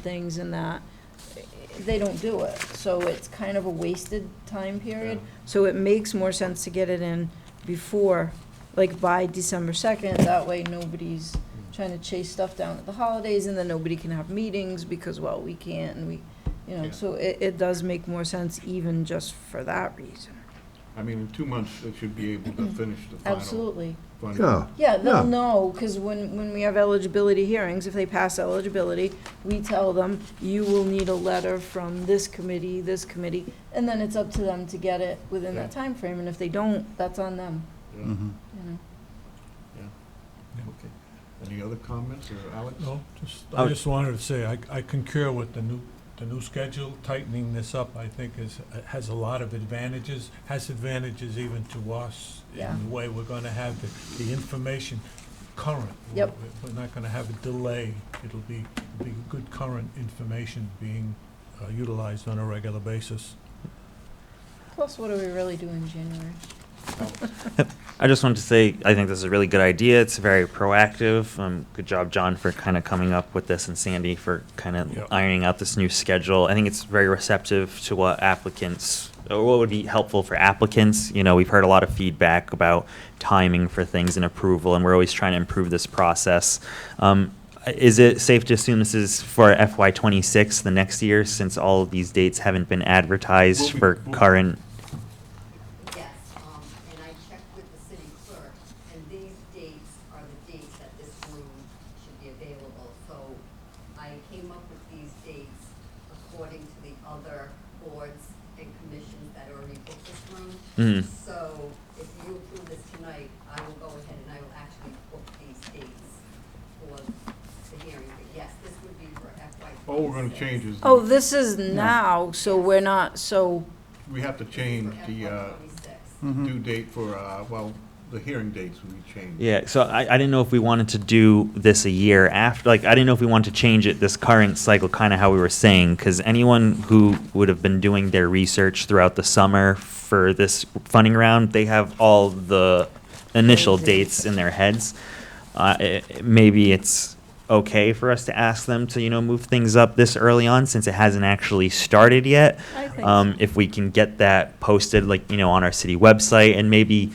things and that, they don't do it. So it's kind of a wasted time period. So it makes more sense to get it in before, like by December 2nd. That way, nobody's trying to chase stuff down at the holidays, and then nobody can have meetings because, well, we can't, and we, you know, Yeah. so it, it does make more sense even just for that reason. I mean, in two months, they should be able to finish the final. Absolutely. funding. Yeah, Yeah, Yeah. they'll know, because when, when we have eligibility hearings, if they pass eligibility, we tell them, you will need a letter from this committee, this committee, and then it's up to them to get it within that time frame. and if they don't, that's on them, Yeah, Mhm. you know? okay. Any other comments, or Alex? No, just, I I was- just wanted to say, I I concur with the new, the new schedule, tightening this up, I think is, has a lot of advantages, has advantages even to us Yeah. in the way we're gonna have the, the information current. Yep. We're- We're not gonna have a delay, it'll be, it'll be good current information being uh, utilized on a regular basis. Plus, what do we really do in January? I just wanted to say I think this is a really good idea. It's very proactive. Um, good job, John, for kind of coming up with this, and Sandy for kind of Yep. ironing out this new schedule. I think it's very receptive to what applicants or what would be helpful for applicants. You know, we've heard a lot of feedback about timing for things and approval, and we're always trying to improve this process. Um, is it safe to assume this is for FY26, the next year, since all of these dates haven't been advertised We'll be- for we'll- current? Yes, um, and I checked with the city clerk, and these dates are the dates that this room should be available. So I came up with these dates according to the other boards and commissions that already booked this room. Mm. So if you approve this tonight, I will go ahead and I will actually book these dates for the hearing. But yes, this would be for FY twenty-six. All we're gonna change is, Oh, this is now, so we're not, so, we have to change the uh, For FY twenty-six. Mm-hmm. due date for, uh, well, the hearing dates we change. Yeah, so I, I didn't know if we wanted to do this a year after, like, I didn't know if we wanted to change it this current cycle, kind of how we were saying, because anyone who would have been doing their research throughout the summer for this funding round, they have all the initial dates in their heads. Uh, i- i- maybe it's okay for us to ask them to, you know, move things up this early on since it hasn't actually started yet. I think Um, so. if we can get that posted, like, you know, on our city website and maybe,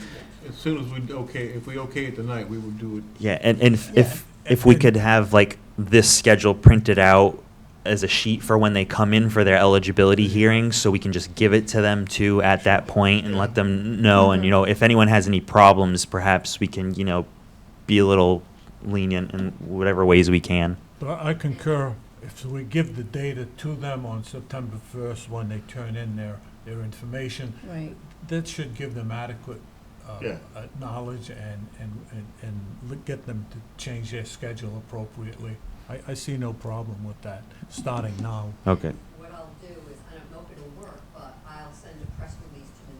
As soon as we, okay, if we okay it tonight, we will do it. yeah, and, and if, Yeah. if if we could have like this schedule printed out as a sheet for when they come in for their eligibility hearings, so we can just give it to them too at that point and let them know. And you know, if anyone has any problems, perhaps we can you know be a little lenient in whatever ways we can. But I I concur, if we give the data to them on September first, when they turn in their, their information, right, That should give them adequate uh, Yeah. uh, knowledge and, and, and- and li- get them to change their schedule appropriately. I, I see no problem with that, starting now. Okay. What I'll do is, I don't know if it'll work, but I'll send a press release to the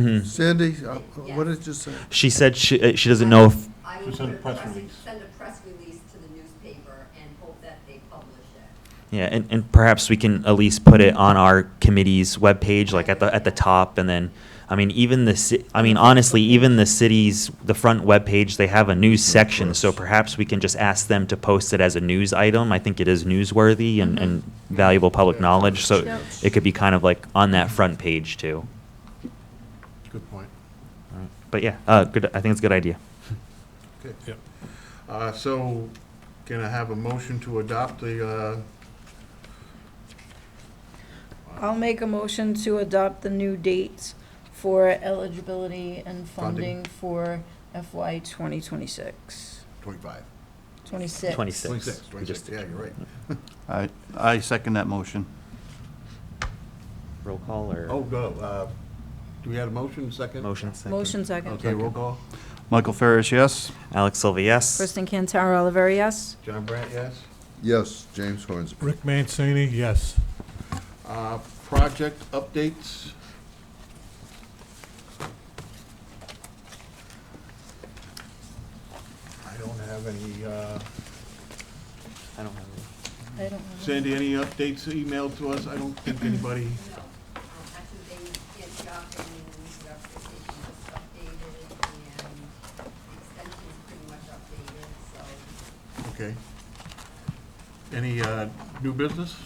newspaper. hmm Sandy, uh, what did you say? She said she uh, she doesn't know if I To will send put a press release. Send a press release to the newspaper and hope that they publish it. yeah, and, and perhaps we can at least put it on our committee's webpage, like at the at the top, and then. I mean, even the ci- I mean, honestly, even the city's the front webpage, they have a news section. So perhaps we can just ask them to post it as a news item. I think it is newsworthy and, Mm-hmm. and valuable public knowledge. So Yep. it could be kind of like on that front page too. Good point. But yeah, uh, good. I think it's a good idea. Okay. Yep. Uh, so, can I have a motion to adopt the, uh, I'll make a motion to adopt the new dates for eligibility and Funding. funding for FY 2026, twenty-five? 26. Twenty six. Twenty-six, twenty-six, yeah, you're right. I, I second that motion. Roll call or Oh, go, uh, do we have a motion, second? motion. Second. Motion second. Okay, roll call. Michael Ferris, yes? Alex Silva, yes. Kristen Cantara Oliveri, yes? John Brandt, yes? Yes, James Hornsby. Rick Mancini, yes. Uh, Project updates? I don't have any, uh, I don't have any. I don't know. Sandy, any updates emailed to us? I don't think anybody, No, um, actually, they did drop in the news representation just updated and the extension's pretty much updated, so okay. Any uh, new business?